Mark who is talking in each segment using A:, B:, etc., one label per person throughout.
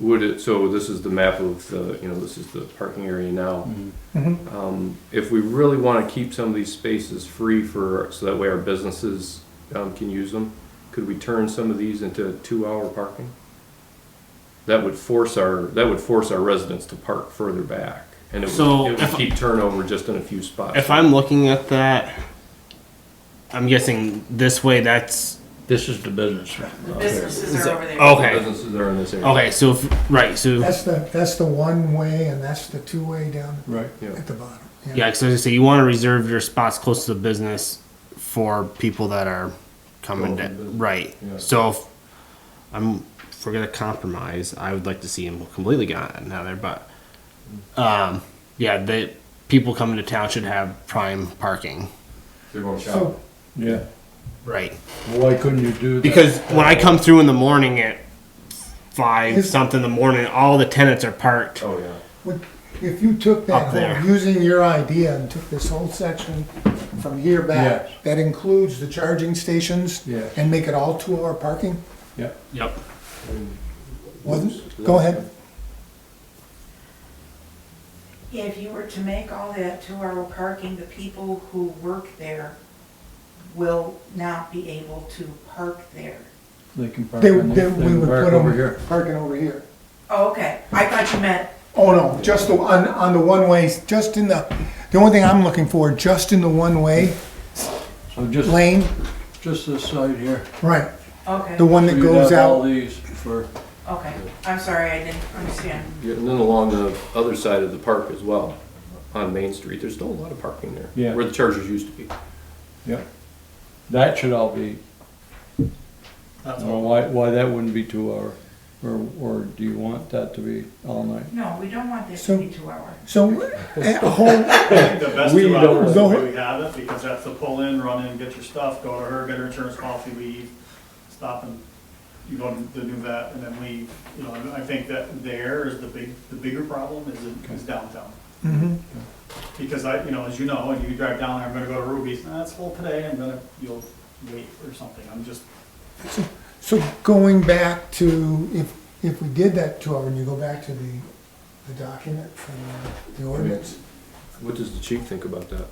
A: would it, so this is the map of the, you know, this is the parking area now.
B: Mm-hmm.
C: Mhm.
A: Um, if we really wanna keep some of these spaces free for, so that way our businesses, um, can use them, could we turn some of these into two-hour parking? That would force our, that would force our residents to park further back, and it
B: So
A: would, it would
B: if-
A: keep turnover just in a few spots.
B: If I'm looking at that, I'm guessing this way. That's
D: This is the business.
E: The businesses
B: Is
E: are
B: that-
E: over there.
B: okay.
A: Businesses are in this area.
B: Okay, so if, right, so
C: That's the, that's the one-way and that's the two-way down
D: Right.
C: at the bottom.
B: yeah, because I say you want to reserve your spots close to the business for people that are coming
A: Going
B: to
A: to business.
B: right.
A: Yeah.
B: So if I'm if we're gonna compromise. I would like to see them completely gone now there, but
A: Mm.
B: um, yeah, the people coming to town should have prime parking,
A: They're going
C: So,
A: shopping.
D: Yeah.
B: right?
D: Why couldn't you do that?
B: Because when I come through in the morning at five
C: Is-
B: something in the morning, all the tenants are parked.
A: Oh, yeah.
C: would- if you took
B: Up
C: that,
B: there.
C: whole- using your idea and took this whole section from here back,
D: Yes.
C: that includes the charging stations?
D: Yes.
C: And make it all two-hour parking?
D: Yeah.
B: Yep.
C: Wouldn't, go ahead.
E: If you were to make all that two-hour parking, the people who work there will not be able to park there.
D: They can park.
C: They,
D: in
C: they,
D: there.
C: we would
D: can park
C: put
D: over here.
C: them, parking over here.
E: Oh, okay, I thought you meant,
C: Oh, no, just the, on, on the one-ways, just in the, the only thing I'm looking for, just in the one-way
D: So just,
C: lane,
D: just this side here.
C: right,
E: okay,
C: the one that
D: You'd
C: goes
D: have all
C: out.
D: these for,
E: okay. I'm sorry, I didn't understand.
A: Yeah, and then along the other side of the park as well, on Main Street, there's still a lot of parking there.
D: Yeah.
A: Where the chargers used to be.
D: yeah. That should all be, or why, why that wouldn't be two hour? Or, or do you want that to be all night?
E: No, we don't want this
C: So-
E: to be two-hour.
C: So, eh, a whole,
F: The best
D: We
F: two
D: don't
F: hours, the
C: know.
F: way we have it, because that's the pull in, run in, get your stuff, go to her, get her insurance policy, leave, stop and you go to the new vet and then leave. You know, and I think that there is the big, the bigger problem is, in- is downtown.
C: Mm-hmm.
F: Because I, you know, as you know, and you drive down, I'm gonna go to Ruby's, nah, it's full today, I'm gonna, you'll wait or something, I'm just,
C: So going back to, if, if we did that two hour, and you go back to the, the document from uh, the ordinance,
A: What does the chief think about that?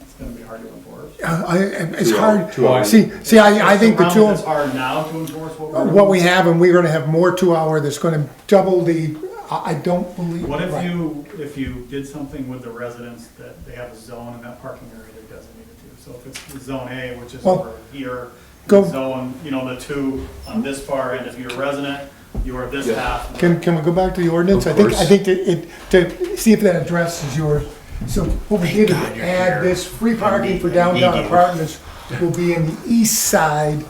F: it's gonna be hard to enforce.
C: uh, I, it's
A: Two hour-
C: hard.
A: two hour.
C: See, see, I, I think the
F: It's
C: two,
F: It's hard now to enforce what we're.
C: what we have, and we're gonna have more two hour that's gonna double the, I, I don't believe.
F: What if
C: right.
F: you, if you did something with the residents that they have a zone in that parking area they're designated to? So if it's zone A, which is
C: Well,
F: over here,
C: go-
F: zone, you know, the two on this far, and if you're a resident, you are this
A: Yeah.
F: half.
C: Can, can we go back to the ordinance?
A: Of
C: I think, I
A: course.
C: think that it, to see if that addresses your, so what we did is add this free parking for downtown apartments will be in the east side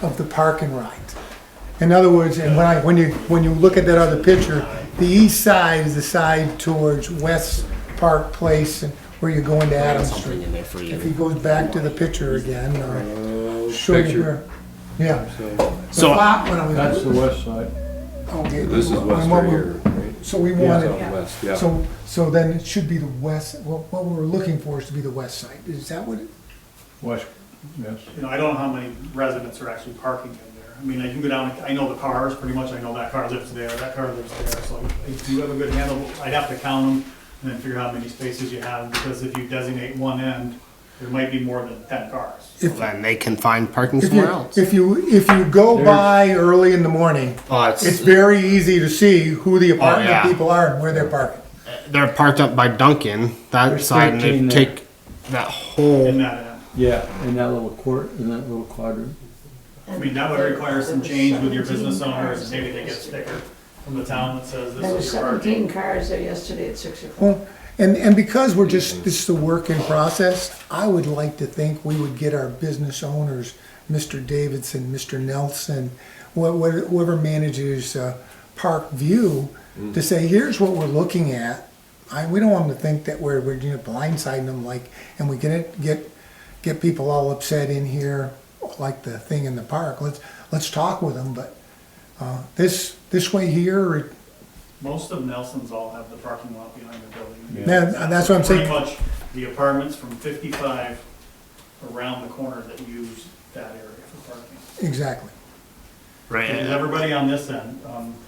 C: of the parking right. In other words, and when I, when you, when you look at that other picture, the east side is the side towards West Park Place and where you're going to Adams
B: Something
C: Street.
B: in there for
C: If
B: you.
C: he goes back to the picture again, or show you
A: Picture.
C: where, yeah.
B: So-
C: The lot when I was-
D: That's the west side.
C: okay,
A: This is
C: when
A: west
C: what
A: right
C: we-
A: here, right?
C: So we
A: It's
C: wanted,
A: out west, yeah.
C: so, so then it should be the west, what, what we're looking for is to be the west side, is that what it?
D: West, yes.
F: You know, I don't know how many residents are actually parking in there. I mean, I can go down, I know the cars, pretty much I know that car lives there, that car lives there, so I do have a good handle. I'd have to count them and then figure out how many spaces you have, because if you designate one end, there might be more than ten cars.
B: Then they can find parking
C: If you-
B: somewhere else.
C: If you, if you go
D: There's-
C: by early in the morning,
B: Oh, it's,
C: it's very easy to see who the apartment
B: yeah.
C: people are and where they're parking.
B: they're parked up by Duncan that
D: There's
B: side, and they
D: 13 there.
B: take that
F: In
B: whole.
F: that end.
D: Yeah, in that little court, in that little quadrant.
F: I mean, that would require some change with your business owners, maybe they get a sticker from the town that says
G: There
F: this
G: were
F: is your parking.
G: seventeen cars there yesterday at six o'clock.
C: Well, and, and because we're just, this is a work in process, I would like to think we would get our business owners, Mr. Davidson, Mr. Nelson, wha- wha- whoever manages uh, Park View, to say, here's what we're looking at. I, we don't want them to think that we're, we're you know, blindsiding them like, and we get it, get, get people all upset in here, like the thing in the park. Let's, let's talk with them, but uh, this, this way here, it-
F: Most of Nelson's all have the parking lot behind the building.
C: Yeah. Yeah, and that's what I'm saying.
F: Pretty much the apartments from fifty-five around the corner that use that area for parking.
C: exactly.
B: Right.
F: And everybody on this end, um,